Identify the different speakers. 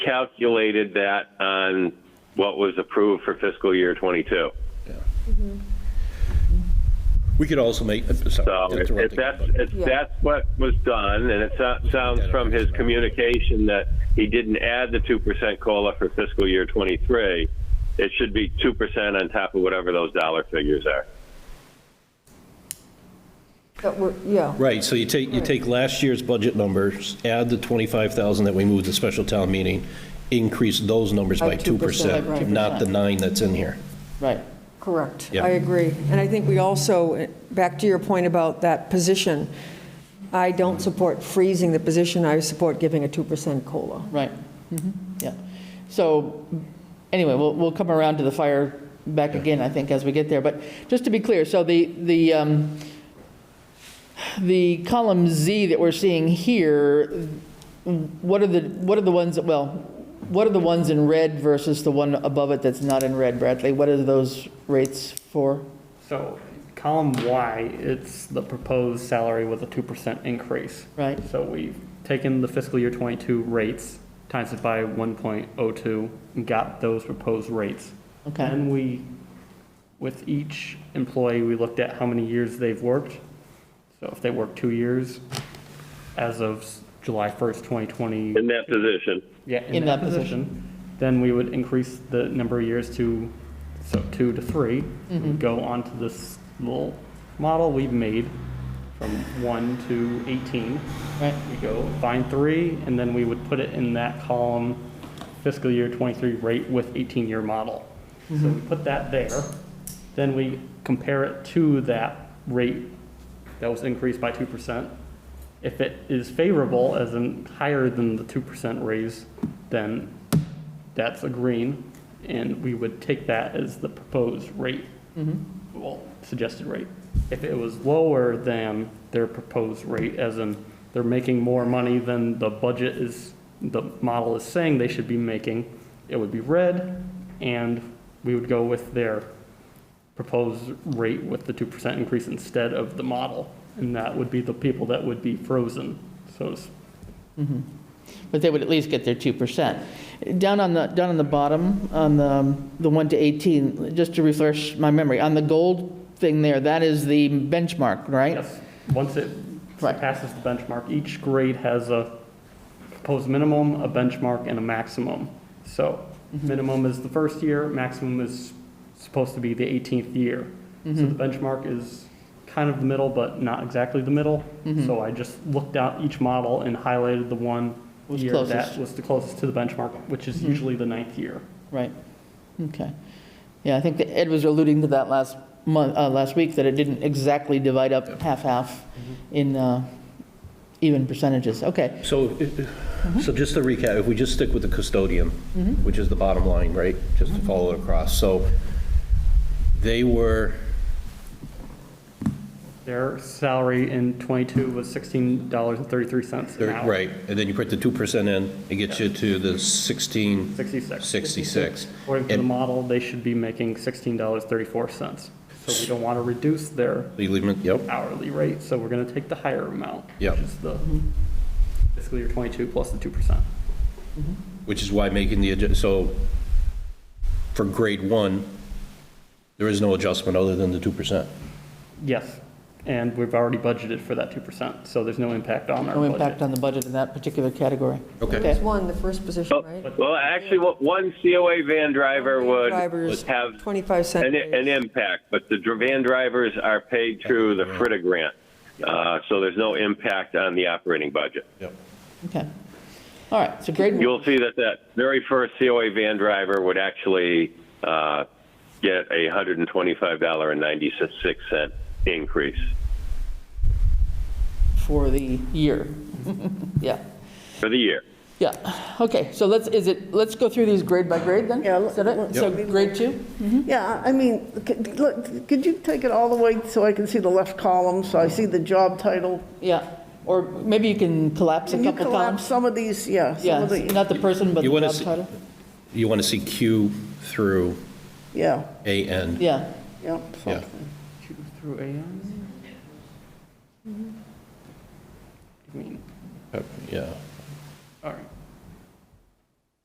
Speaker 1: calculated that on what was approved for fiscal year 22.
Speaker 2: We could also make, uh, sorry,
Speaker 1: So if
Speaker 2: interrupting,
Speaker 1: that's,
Speaker 2: but-
Speaker 1: if that's what was done, and it so- sounds from his communication that he didn't add the 2% COLA for fiscal year 23, it should be 2% on top of whatever those dollar figures are.
Speaker 3: That we're, yeah,
Speaker 2: Right, so you take, you take last year's budget numbers, add the 25,000 that we moved to special town meeting, increase those numbers by
Speaker 3: By 2%, right.
Speaker 2: 2%, not the nine that's in here.
Speaker 4: Right.
Speaker 3: correct.
Speaker 2: Yeah.
Speaker 3: I agree. And I think we also, back to your point about that position, I don't support freezing the position, I support giving a 2% COLA.
Speaker 4: Right, Mhm. yeah. So, anyway, we'll, we'll come around to the fire back again, I think, as we get there. But just to be clear, so the, the, um, the column Z that we're seeing here, what are the, what are the ones, that well, what are the ones in red versus the one above it that's not in red, Bradley? What are those rates for?
Speaker 5: So column Y, it's the proposed salary with a 2% increase.
Speaker 4: Right,
Speaker 5: So we've taken the fiscal year 22 rates, times it by 1.02, and got those proposed rates.
Speaker 4: okay,
Speaker 5: And we, with each employee, we looked at how many years they've worked. So if they worked two years, as of s- July 1st, 2020.
Speaker 1: In that position,
Speaker 5: Yeah,
Speaker 4: In that position.
Speaker 5: Then we would increase the number of years to, so two to three.
Speaker 4: Mm-hmm.
Speaker 5: We'd Go on to this little model we've made from one to 18.
Speaker 4: right,
Speaker 5: We go find three, and then we would put it in that column fiscal year 23 rate with 18-year model. So we put that there, then we compare it to that rate that was increased by 2%. If it is favorable, as in higher than the 2% raise, then that's a green, and we would take that as the proposed rate, well, suggested rate. If it was lower than their proposed rate, as in they're making more money than the budget is, the model is saying they should be making, it would be red, and we would go with their proposed rate with the 2% increase instead of the model. And that would be the people that would be frozen, so to speak.
Speaker 4: but they would at least get their 2%. Down on the, down on the bottom, on the, the 1 to 18, just to refresh my memory, on the gold thing there, that is the benchmark, right?
Speaker 5: Yes, once it
Speaker 4: Right.
Speaker 5: passes the benchmark, each grade has a proposed minimum, a benchmark, and a maximum. So
Speaker 4: Mm-hmm.
Speaker 5: minimum is the first year, maximum is supposed to be the 18th year. So the
Speaker 4: Mm-hmm.
Speaker 5: benchmark is kind of the middle, but not exactly the middle.
Speaker 4: Mm-hmm.
Speaker 5: So I just looked out each model and highlighted the one
Speaker 4: Was
Speaker 5: year
Speaker 4: closest. Mm-hmm.
Speaker 5: that was the closest to the benchmark, which is usually the ninth year.
Speaker 4: Right, okay. Yeah, I think that Ed was alluding to that last month, uh, last week, that it didn't exactly divide up half-half
Speaker 5: Mm-hmm.
Speaker 4: in uh, even percentages. Okay,
Speaker 2: So, i- i- so just to recap, if we just stick with the custodian,
Speaker 3: Mm-hmm.
Speaker 2: which is the bottom line, right? Just to follow it across. So they were,
Speaker 5: Their salary in 22 was $16.33 an hour.
Speaker 2: right, and then you put the 2% in, it gets you to the 16,
Speaker 5: 66.
Speaker 2: 66.
Speaker 5: According to the
Speaker 2: And-
Speaker 5: model, they should be making $16.34. So we don't want to reduce their
Speaker 2: You leave them- Yep,
Speaker 5: hourly rate, so we're going to take the higher amount.
Speaker 2: Yep.
Speaker 5: Which is the fiscal year 22 plus the 2%.
Speaker 2: which is why making the, adju- so for grade one, there is no adjustment other than the 2%.
Speaker 5: Yes, and we've already budgeted for that 2%, so there's no impact on our
Speaker 4: no
Speaker 5: budget.
Speaker 4: impact on the budget in that particular category.
Speaker 2: Okay.
Speaker 3: There's one, the first
Speaker 1: Oh,
Speaker 3: position, right?
Speaker 1: well, actually, what- one COA van driver would
Speaker 3: Drivers,
Speaker 1: have
Speaker 3: 25 cent
Speaker 1: an, an
Speaker 3: raise.
Speaker 1: impact, but the dr- van drivers are paid through the FRITA grant, uh, so there's no impact on the operating budget.
Speaker 2: Yep.
Speaker 4: Okay. All right, so grade,
Speaker 1: You'll see that that very first COA van driver would actually uh, get a $125.96 increase.
Speaker 4: for the year. Yeah,
Speaker 1: For the year.
Speaker 4: yeah. Okay, so let's, is it, let's go through these grade by grade then?
Speaker 6: Yeah,
Speaker 4: Is that it?
Speaker 6: let's-
Speaker 4: So
Speaker 6: Yep.
Speaker 4: grade two?
Speaker 6: Yeah, I mean, c- look, could you take it all the way so I can see the left column, so I see the job title?
Speaker 4: Yeah, or maybe you can collapse a
Speaker 6: Can you
Speaker 4: couple
Speaker 6: collapse
Speaker 4: columns?
Speaker 6: some of these, yeah, some
Speaker 4: Yeah,
Speaker 6: of the,
Speaker 4: not the person, but the
Speaker 2: You wanna
Speaker 4: job
Speaker 2: see-
Speaker 4: title?
Speaker 2: You want to see Q through
Speaker 6: yeah,
Speaker 2: A N.
Speaker 4: Yeah,
Speaker 6: yeah.
Speaker 2: Yeah.
Speaker 5: Q through AM? I mean,
Speaker 2: Yeah.